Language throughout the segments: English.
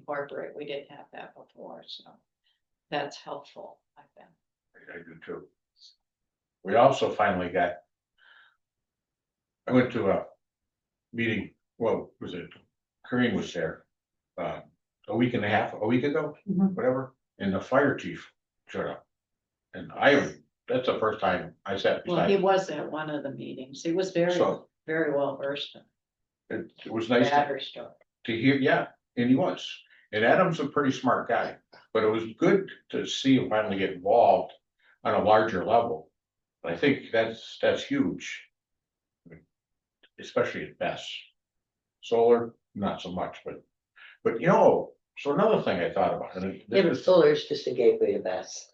incorporate. We didn't have that before, so that's helpful, I think. I do too. We also finally got. I went to a meeting, well, was it, Kareem was there, um, a week and a half, a week ago, Mhm. whatever, and the fire chief showed up. And I, that's the first time I sat Well, he beside, was at one of the meetings. He was very, So- very well versed in it it was nice to battery stuff. to hear, yeah, and he was. And Adam's a pretty smart guy, but it was good to see him finally get involved on a larger level. And I think that's, that's huge. Especially at best. Solar, not so much, but, but you know, so another thing I thought about, and it- Yeah, but this is, solar is just a gateway to mass.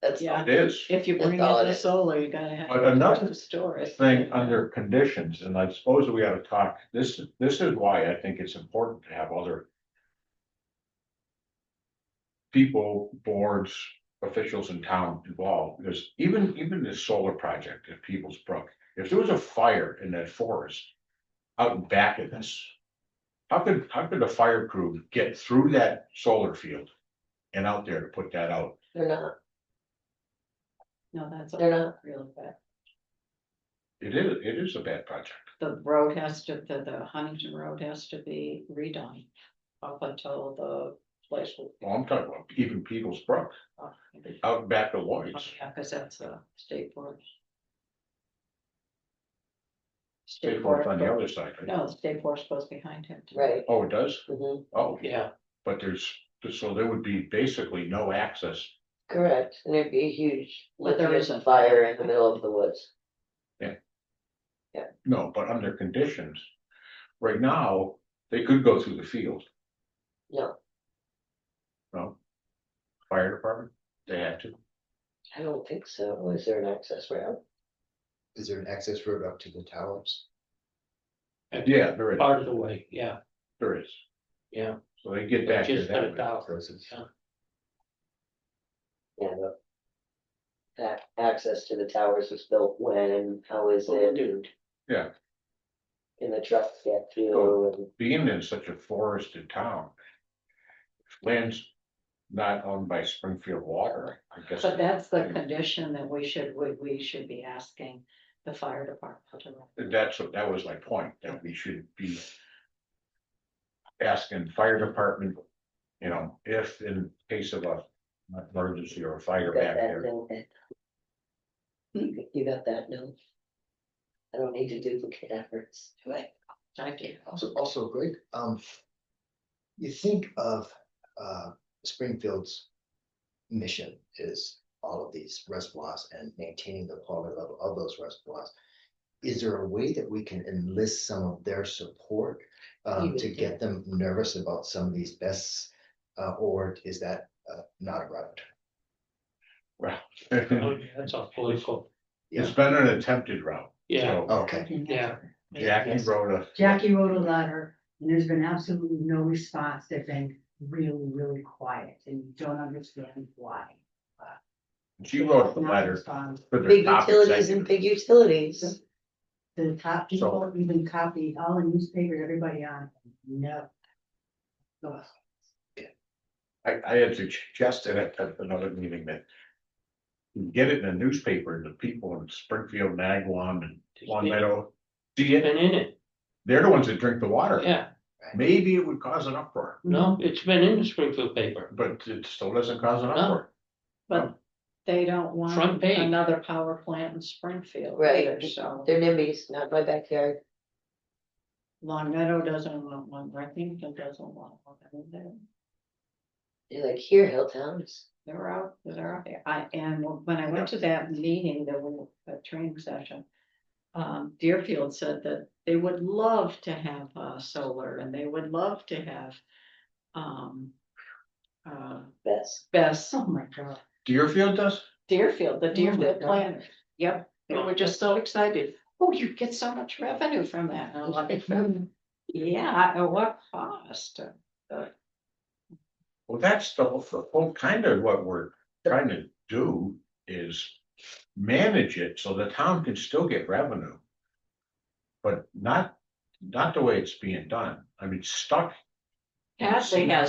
That's, Yeah. all. it is. If you That's bring in all it the is. solar, you gotta have. But another the Storage. thing under conditions, and I suppose we ought to talk, this, this is why I think it's important to have other. People, boards, officials in town involved, because even, even this solar project at Peoples Brook, if there was a fire in that forest. Out in back of this. How could, how could the fire crew get through that solar field? And out there to put that out, they're not, No, that's they're not, really bad. it is, it is a bad project. The road has to, the, the Huntington Road has to be redone up until the place will. Well, I'm talking about even Peoples Brook, oh, maybe- out back of oh, Lloyd's. Yeah, cause that's a state forest. State forest on the other side, right? No, the state forest goes behind him. right? Oh, it does? Mhm. Oh, Yeah. but there's, so there would be basically no access. Correct, and it'd be a huge, But there lithium isn't. fire in the middle of the woods. No, but under conditions, right now, they could go through the field. No. No? Fire department, they had to. I don't think so. Is there an access route? Is there an access road up to the towers? Yeah, there is, Part of the way, yeah, there is. yeah, So they get back to just put that. it down, yeah. Yeah, but That access to the towers was built when and how is it? and- Yeah. Can the trucks get through and Being in such a forested town. if Land's not owned by Springfield Water, I guess. But that's the Yeah. condition that we should, we, we should be asking the fire department to. That's what, that was my point, that we should be. Asking fire department, you know, if in case of a an emergency or a fire got back that there, note? You got that note? I don't need to duplicate efforts. do I? Thank you. Also, also Greg, um. You think of uh Springfield's. Mission is all of these reservoirs and maintaining the quality level of those reservoirs. Is there a way that we can enlist some of their support um Even to get them nervous about some of these bests? Uh, or is that uh not a route? well. Oh, yeah, That's all political, It's been an attempted route. yeah, So Okay. yeah, Jackie wrote a, Jackie wrote a letter and there's been absolutely no response. They've been really, really quiet and you don't understand why. Um, she wrote the Not letter respond. for the Big top utilities and executive. big utilities. The top people even copied all the newspapers, everybody on, it. no. Ugh. I, I had suggested at, at another meeting that. you Get it in a newspaper, and the people in Springfield, Nagwam and Long Meadow, see it, been in it, they're the ones that drink the water. yeah, Maybe it would cause an uproar. no, it's been in the Springfield paper, But it still doesn't cause an No. uproar. But they don't Front want page. another power plant in Springfield Right. either, so. They're NIMBYs, not my backyard. Long Meadow doesn't want one, Breckenridge doesn't want one, I mean, they're, They're like, here, Hilltown is they're out, they're out there. I, and when I went to that meeting, the, w- the training session. Um, Deerfield said that they would love to have, uh, solar and they would love to have, um. Uh, best. best Oh my god. Oh Deerfield does? Deerfield, the my Deerfield God. planners, yep, they were just so excited. Oh, you get so much revenue from that, and I'm like, yeah, at what cost? Well, that's the, whole- the whole kind of what we're trying to do is manage it so the town can still get revenue. But not, not the way it's being done. I mean, stuck Hadley has